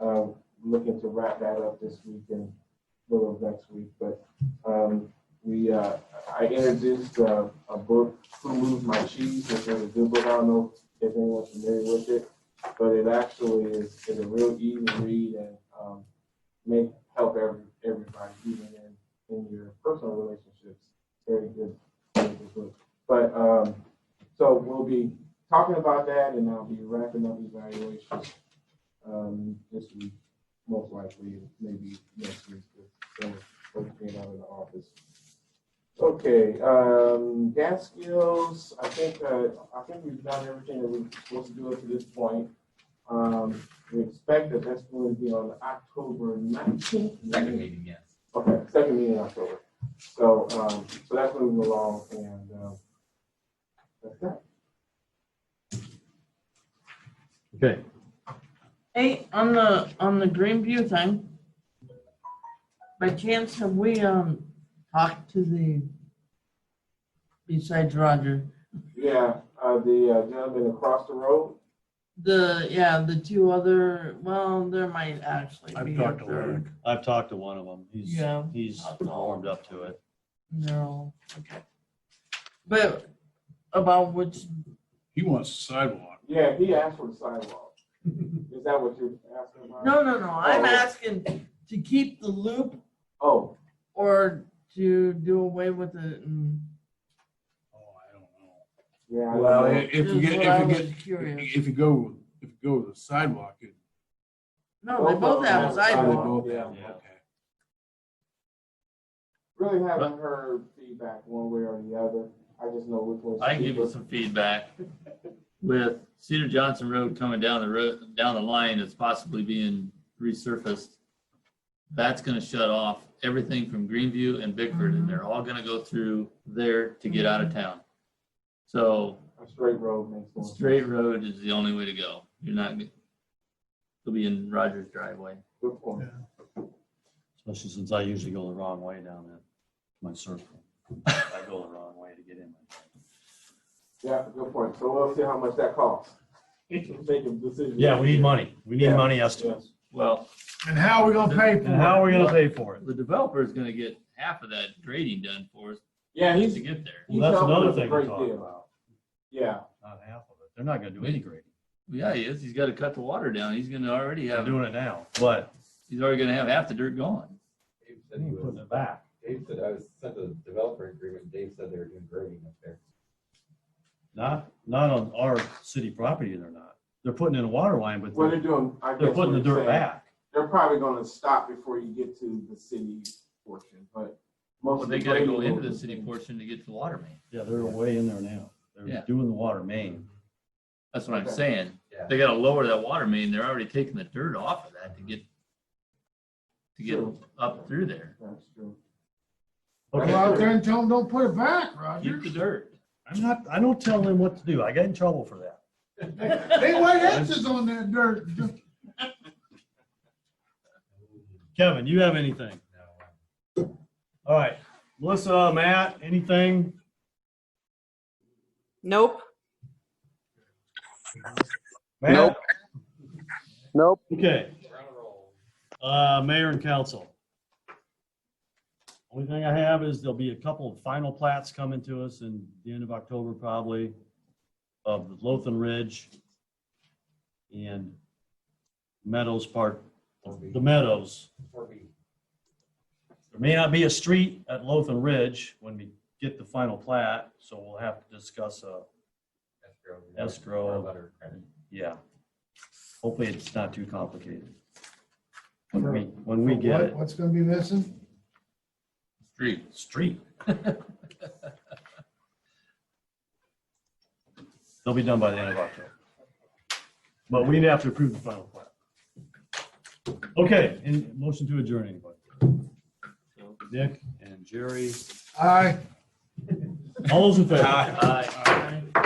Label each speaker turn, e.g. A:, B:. A: um, wrap that up this week and little of next week, but um, we, uh, I introduced uh, a book, Who Moved My Cheese, which is a good book, I don't know if anyone's familiar with it, but it actually is, is a real easy read and um, may help every, everybody, even in, in your personal relationships. Very good, very good book. But, um, so we'll be talking about that and I'll be wrapping up evaluation um, this week, most likely, maybe next week, if someone's supposed to be out of the office. Okay, um, gas skills, I think, uh, I think we've done everything that we're supposed to do up to this point. Um, we expect that that's going to be on October nineteenth.
B: Second meeting, yes.
A: Okay, second meeting in October. So, um, so that's moving along and, um, that's that.
C: Okay,
D: Hey, on the, on the Greenview thing, by chance, have we, um, talked to the, besides Roger,
A: Yeah, uh, the uh, gentleman across the road.
D: the, yeah, the two other, well, there might actually be.
E: I've
D: a
E: talked to
D: third.
E: Eric.
C: I've talked to one of them. He's,
D: Yeah.
C: he's warmed up to it.
D: No, okay. But about which,
E: He wants a sidewalk.
A: Yeah, he asked for the sidewalk. Is that what you're asking about?
D: no, no, no, I'm
A: Oh.
D: asking to keep the loop
A: Oh,
D: or to do away with it and.
E: Oh, I don't
A: yeah. I
E: know. Well,
A: don't know.
E: if you
D: This is
E: get,
D: what I
E: if you
D: was
E: get,
D: Curious.
E: if you go, if you go to the sidewalk, it.
D: No, they
A: Both of
D: both
A: them
D: have
A: have
E: they
A: sidewalk.
D: sidewalk.
E: both
A: yeah.
E: have,
C: Yeah.
E: okay.
A: Really haven't heard feedback one way or the other. I just know which one's.
B: I can give you
A: cheaper.
B: some feedback. With Cedar Johnson Road coming down the road, down the line, it's possibly being resurfaced. That's gonna shut off everything from Greenview and Bickford, and they're all gonna go through there to get out of town. So
A: A straight road makes
B: the
A: more. sense.
B: straight road is the only way to go. You're not, you'll be in Rogers driveway.
A: Good point.
C: Especially since I usually go the wrong way down at my circle. I go the wrong way to get in.
A: Yeah, good point. So we'll see how much that costs. Make a decision.
C: money. We
A: need
C: money
A: estimates.
B: Well,
E: And how are we gonna pay for it?
C: we gonna pay for it?
B: the developer is gonna get half of that grading done for us
A: Yeah,
B: to
A: he's.
B: get there.
A: he's
C: Well, that's
A: helping
C: another
A: us a
C: thing
A: great
C: to talk
A: deal.
C: about.
A: Yeah,
C: Not half of it. They're not gonna do any grading.
B: Yeah, he is. He's gotta cut the water down. He's gonna already
C: They're
B: have.
C: doing it now, but.
B: he's already gonna have half the dirt gone.
F: Dave said he was,
C: it back.
F: Dave said I was sent a developer agreement, Dave said they were doing grading up there.
C: Not, not on our city property, they're not. They're putting in a water line, but
A: what they're
C: they're,
A: doing, I guess.
C: they're putting the
A: what you're
C: dirt
A: saying,
C: back.
A: They're probably gonna stop before you get to the city portion, but most.
B: Well,
A: of
B: they
A: the
B: gotta go
A: grading
B: into the
A: will-
B: city portion to get to the water main.
C: Yeah, they're way in there now. They're
B: Yeah.
C: doing the water main.
B: That's what I'm
A: Okay.
B: saying.
F: Yeah.
B: They gotta lower that water main. They're already taking the dirt off of that to get to get
A: True.
B: up through there.
A: That's true.
E: Go
C: Okay.
E: out there and tell them, don't put it back, Roger.
B: Keep the dirt.
C: I'm not, I don't tell them what to do. I get in trouble for that.
E: They white X's on that dirt.
C: Kevin, you have anything? All right, Melissa, Matt, anything?
G: Nope.
C: Matt?
H: Nope.
C: Okay,
F: We're on a roll.
C: uh, mayor and council. Only thing I have is there'll be a couple of final plats coming to us in the end of October probably of Lothan Ridge and Meadows Park, the Meadows.
F: Four B.
C: There may not be a street at Lothan Ridge when we get the final plat, so we'll have to discuss uh, a,
F: escrow.
C: Escrow.
F: Or letter of credit.
C: yeah. Hopefully it's not too complicated. When we, when we get it,
E: What's gonna be missing?
B: Street.
C: street. They'll be done by the end of October. But we'd have to approve the final plat. Okay, and motion to adjourn, anybody? Nick and Jerry,
E: Aye.
C: all those in favor?
B: Aye.